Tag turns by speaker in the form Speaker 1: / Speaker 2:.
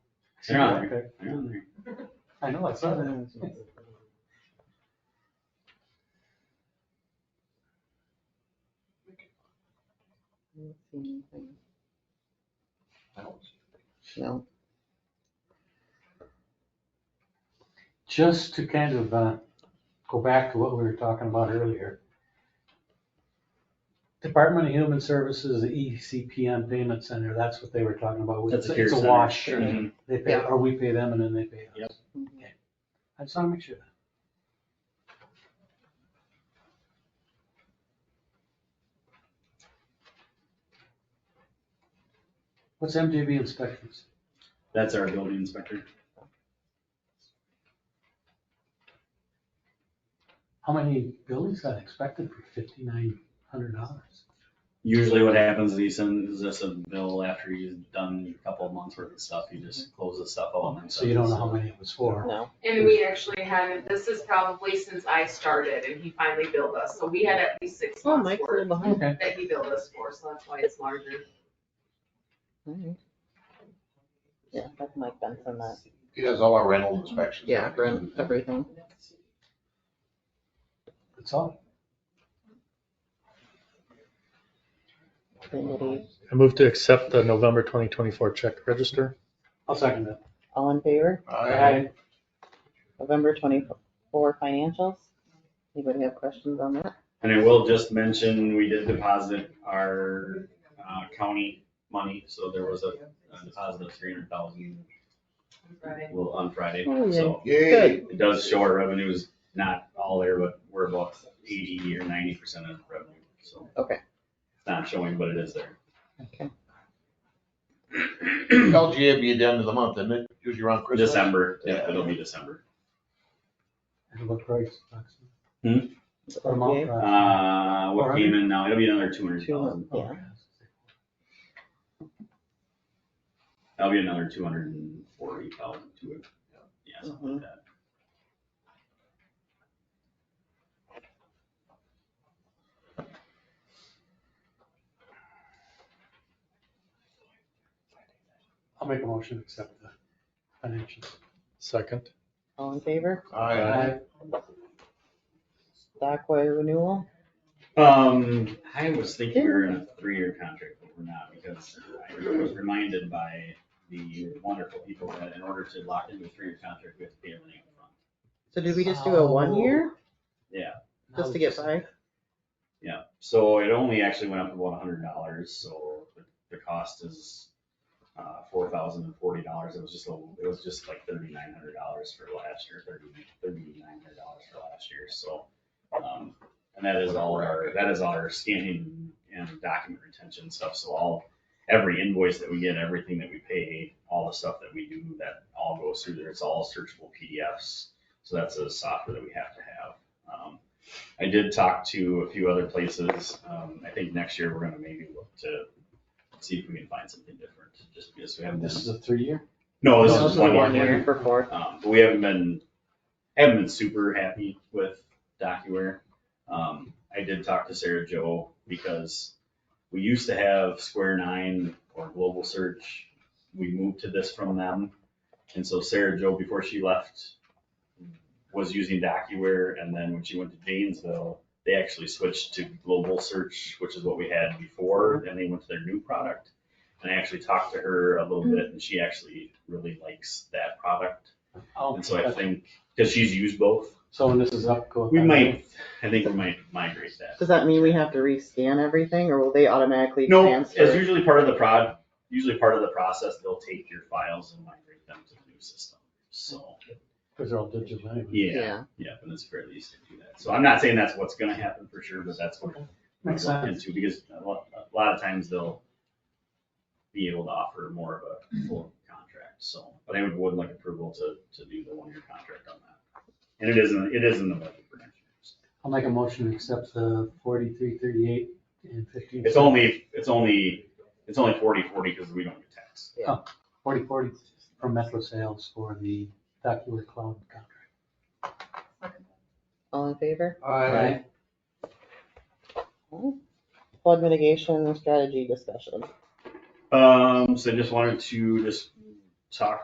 Speaker 1: They're on there, they're on there.
Speaker 2: I know, I saw that.
Speaker 3: don't see anything.
Speaker 2: I don't see
Speaker 3: No,
Speaker 2: Just to kind of uh, go back to what we were talking about earlier. Department of Human Services, the E ECPM Payment Center, that's what they were talking about.
Speaker 1: That's a care
Speaker 2: It's a
Speaker 1: center.
Speaker 2: wash.
Speaker 1: Mhm.
Speaker 2: They pay,
Speaker 3: Yeah.
Speaker 2: or we pay them and then they pay us.
Speaker 1: Yep.
Speaker 2: Okay. I just want to make sure. What's MJB inspections?
Speaker 1: That's our building inspector.
Speaker 2: How many buildings got inspected for fifty-nine hundred dollars?
Speaker 1: Usually what happens is he sends us a bill after he's done a couple of months worth of stuff. He just closes stuff out. and
Speaker 2: So you don't know how many it was for.
Speaker 3: no.
Speaker 4: And we actually haven't, this is probably since I started and he finally billed us, so we had at least six
Speaker 3: Oh,
Speaker 4: months
Speaker 3: Mike's a
Speaker 4: worth
Speaker 3: little behind.
Speaker 2: Okay.
Speaker 4: that he billed us for, so that's why it's larger.
Speaker 3: Alright. Yeah, that's Mike Benson, that,
Speaker 5: He does all our rental inspections.
Speaker 3: yeah, rent, everything.
Speaker 2: That's all.
Speaker 3: Trinity.
Speaker 6: I move to accept the November 2024 check register.
Speaker 2: I'll second that.
Speaker 3: All in favor?
Speaker 5: I
Speaker 3: November twenty-four financials? Anybody have questions on that?
Speaker 1: And I will just mention, we did deposit our uh, county money, so there was a a deposit of three hundred thousand on Friday.
Speaker 3: Oh, yeah.
Speaker 1: So
Speaker 5: Yay.
Speaker 1: it does show our revenues, not all there, but we're about eighty or ninety percent of revenue, so.
Speaker 3: Okay.
Speaker 1: It's Not showing, but it is there.
Speaker 3: Okay.
Speaker 5: LGA be at the end of the month, isn't it? Usually around Christmas.
Speaker 1: December, yeah, it'll be December.
Speaker 2: And what price? approximately? Or amount,
Speaker 3: Okay.
Speaker 2: approximately?
Speaker 1: Hmm? Uh, what came in now, it'll be another two hundred thousand.
Speaker 2: Oh,
Speaker 3: Two, yeah.
Speaker 1: That'll be another two hundred and forty thousand to it. Yeah, something like that.
Speaker 2: I'll make a motion to accept the financials.
Speaker 6: Second.
Speaker 3: All in favor?
Speaker 5: Aye.
Speaker 3: Stockway renewal?
Speaker 1: Um, I was thinking we were in a three-year contract, but we're not because I was reminded by the wonderful people that in order to lock into a three-year contract, we have to pay everything upfront.
Speaker 3: So did we just do a one year?
Speaker 1: Yeah,
Speaker 3: Just to get by?
Speaker 1: yeah. So it only actually went up to about hundred dollars, so the, the cost is uh, four thousand and forty dollars. It was just a, it was just like thirty-nine hundred dollars for last year, thirty, thirty-nine hundred dollars for last year, so. um, And that is all our, that is all our scanning and document retention stuff, so all, every invoice that we get, everything that we pay, all the stuff that we do, that all goes through there, it's all searchable PDFs. So that's a software that we have to have. Um, I did talk to a few other places, um, I think next year we're gonna maybe look to see if we can find something different, just because we haven't.
Speaker 2: is a three-year?
Speaker 1: No,
Speaker 2: No,
Speaker 1: Oh, this is one
Speaker 3: One
Speaker 1: year.
Speaker 3: year for four.
Speaker 1: Um, but we haven't been, haven't been super happy with DocuWare. Um, I did talk to Sarah Joe because we used to have Square Nine or Global Search. We moved to this from them. And so Sarah Joe, before she left, was using DocuWare. And then when she went to Janesville, they actually switched to Global Search, which is what we had before. And they went to their new product. And I actually talked to her a little bit and she actually really likes that product.
Speaker 2: Oh.
Speaker 1: And so I think, because she's used both,
Speaker 2: So when this is up, go.
Speaker 1: we might, I think we might migrate that.
Speaker 3: Does that mean we have to rescan everything or will they automatically
Speaker 1: No, it's
Speaker 3: transfer?
Speaker 1: usually part of the prod, usually part of the process, they'll take your files and migrate them to the new system. So,
Speaker 2: Because they're all digital anyway.
Speaker 1: yeah, yeah, but it's fairly easy to do that. So I'm not saying that's what's gonna happen for sure, but that's what I'm
Speaker 2: Makes sense.
Speaker 1: looking into, because a lot, a lot of times they'll be able to offer more of a full contract, so, but I would, would like approval to, to do the one-year contract on that. And it isn't, it isn't the budget for next year. so.
Speaker 2: I'll make a motion to accept the forty-three, thirty-eight and fifteen.
Speaker 1: It's only, it's only, it's only forty, forty, because we don't get taxed.
Speaker 2: Forty, forty from Metro Sales for the DocuWare Cloud contract.
Speaker 3: All in favor?
Speaker 5: Aye.
Speaker 3: Flood mitigation strategy discussion.
Speaker 1: Um, so I just wanted to just talk